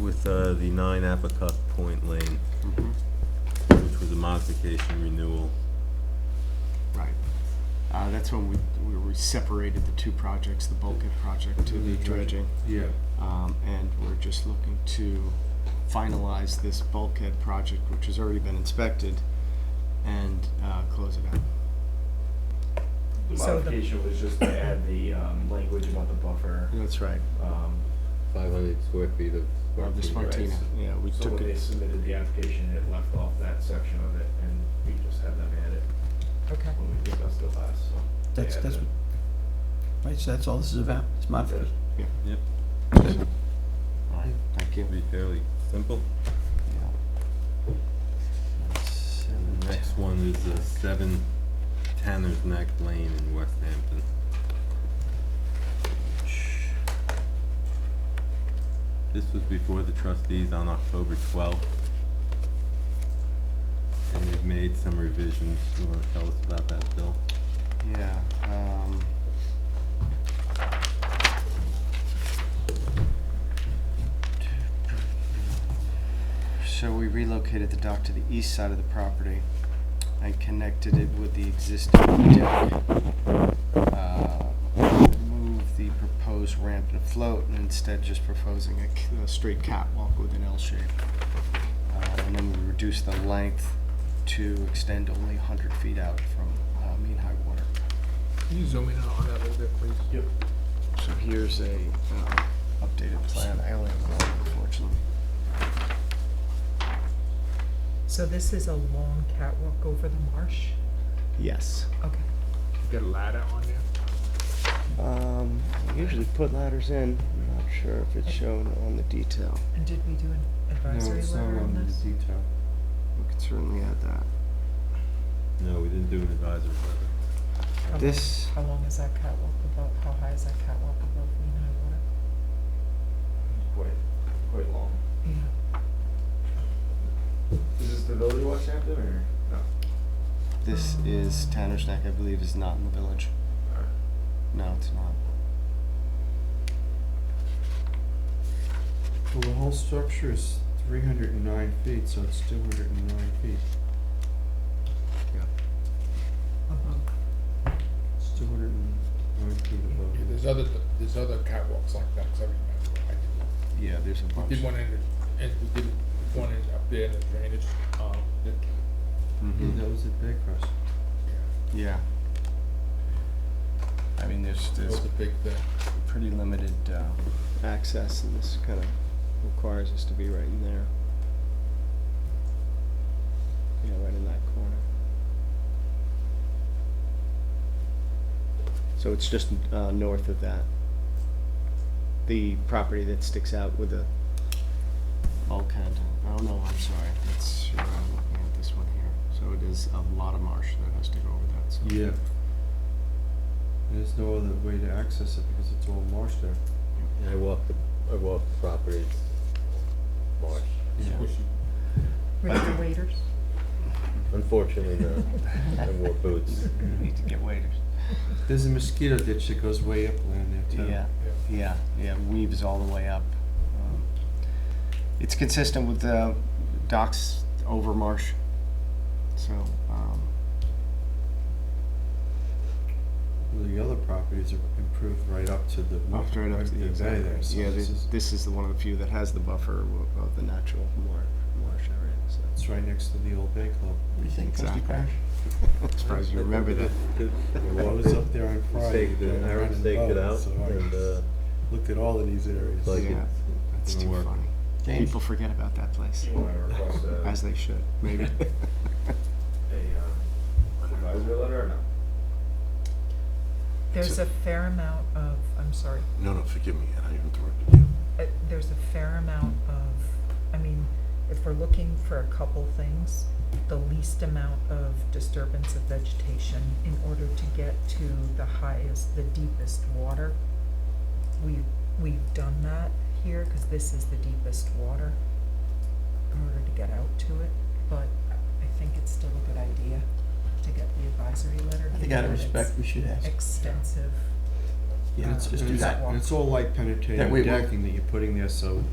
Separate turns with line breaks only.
with uh, the nine Apicock Point Lane,
Mm-hmm.
which was a modification renewal.
Right. Uh, that's when we, we we separated the two projects, the bulkhead project to the dredging.
Yeah,
Um, and we're just looking to finalize this bulkhead project, which has already been inspected, and, uh, close it out.
The
So the-
modification was just to add the um, language about the buffer.
That's right.
um,
five hundred square feet of.
Of the Spartina, yeah, we
So
took
when they
it,
submitted the application, it left off that section of it, and we just had them add it
Okay.
when we discussed it last, so. they
That's,
added
that's,
it.
what- right, so that's all this is about, it's modification.
Yep,
Good.
thank you.
should be fairly simple. The next one is uh, seven Tanner's Neck Lane in West Hampton. This was before the trustees on October twelfth. And they've made some revisions. You wanna tell us about that, Bill?
Yeah, um. So we relocated the dock to the east side of the property and connected it with the existing deck. Uh, Moved the proposed ramp and float and instead just proposing a, c- a straight catwalk with an L shape. Uh, and then we reduced the length to extend only hundred feet out from, uh, mean high water.
Can you zoom in on that a little bit, please?
Yep.
So here's a uh, updated plan. I only have one, unfortunately.
So this is a long catwalk over the marsh?
Yes.
Okay.
Got a ladder on there?
Um, I usually put ladders in. I'm not sure if it's shown on the detail.
And did we do an
No,
advisory
it's not
letter on
on
this?
the detail. We could certainly add that.
No, we didn't do an advisory letter.
How long-
This,
How long is that catwalk above, how high is that catwalk above mean high water?
Quite, quite long.
Yeah.
Is this the village of West Hampton, or? No.
this is Tanner's Neck, I believe, is not in the village.
Alright.
No, it's not.
Well, the whole structure is three hundred and nine feet, so it's two hundred and nine feet.
Uh-huh.
It's two hundred and nine feet above.
Yeah, there's other, there's other catwalks like that, 'cause I remember, I did,
Yeah, there's a bunch.
we did one in, the- and we did one in, up there in the drainage, um, the,
Yeah,
Hmm.
that was at Baycrest.
yeah,
Mm-hmm. Yeah. I mean, there's,
that
there's
was a big thing.
pretty limited uh, access, and this kind of requires us to be right in there. Yeah, right in that corner. So it's just uh, north of that. The property that sticks out with the bulkhead. Oh, no, I'm sorry. That's, I'm looking at this one here. So it is a lot of marsh that has to go over that, so.
Yeah. There's no other way to access it because it's all marsh there.
I walked the, I walked the property. March.
Squishy.
With the waiters?
Unfortunately, no. I wore boots.
Need to get waiters.
There's a mosquito ditch that goes way upland there too.
Yeah, yeah, yeah, weaves all the way up. Um, It's consistent with the docks over marsh, so, um,
Well, The other properties are improved right up to the. wa-
after it,
the bay
exactly,
there, so
yeah,
this
this,
is-
this is the one of the few that has the buffer w- of the natural mar- marsh area, so.
It's right next to the old Bay Club.
What do you think, Trustee
Exactly.
Parrish?
Surprised you remember that.
Well, I was up there on Friday.
Stake the,
and I
Aaron
ran
staked it
boat,
out
so I
and, uh,
Looked at all of these areas.
like
Yeah.
it's
That's
Didn't
too
work.
funny.
James?
People forget about that place,
You wanna request
uh,
a,
as they should, maybe.
a, um, advisory letter or no?
There's a fair amount of, I'm sorry,
No, no, forgive me, and I interrupted you.
uh, there's a fair amount of, I mean, if we're looking for a couple things, the least amount of disturbance of vegetation in order to get to the highest, the deepest water. We, we've done that here, cause this is the deepest water in order to get out to it, but I think it's still a good idea to get the advisory letter.
I think out of
given that it's
respect, we should ask.
Extensive.
And
Yeah,
it's,
just
and
do
it's,
that.
and it's all light
That
penetrating
way we-
decking that you're putting there, so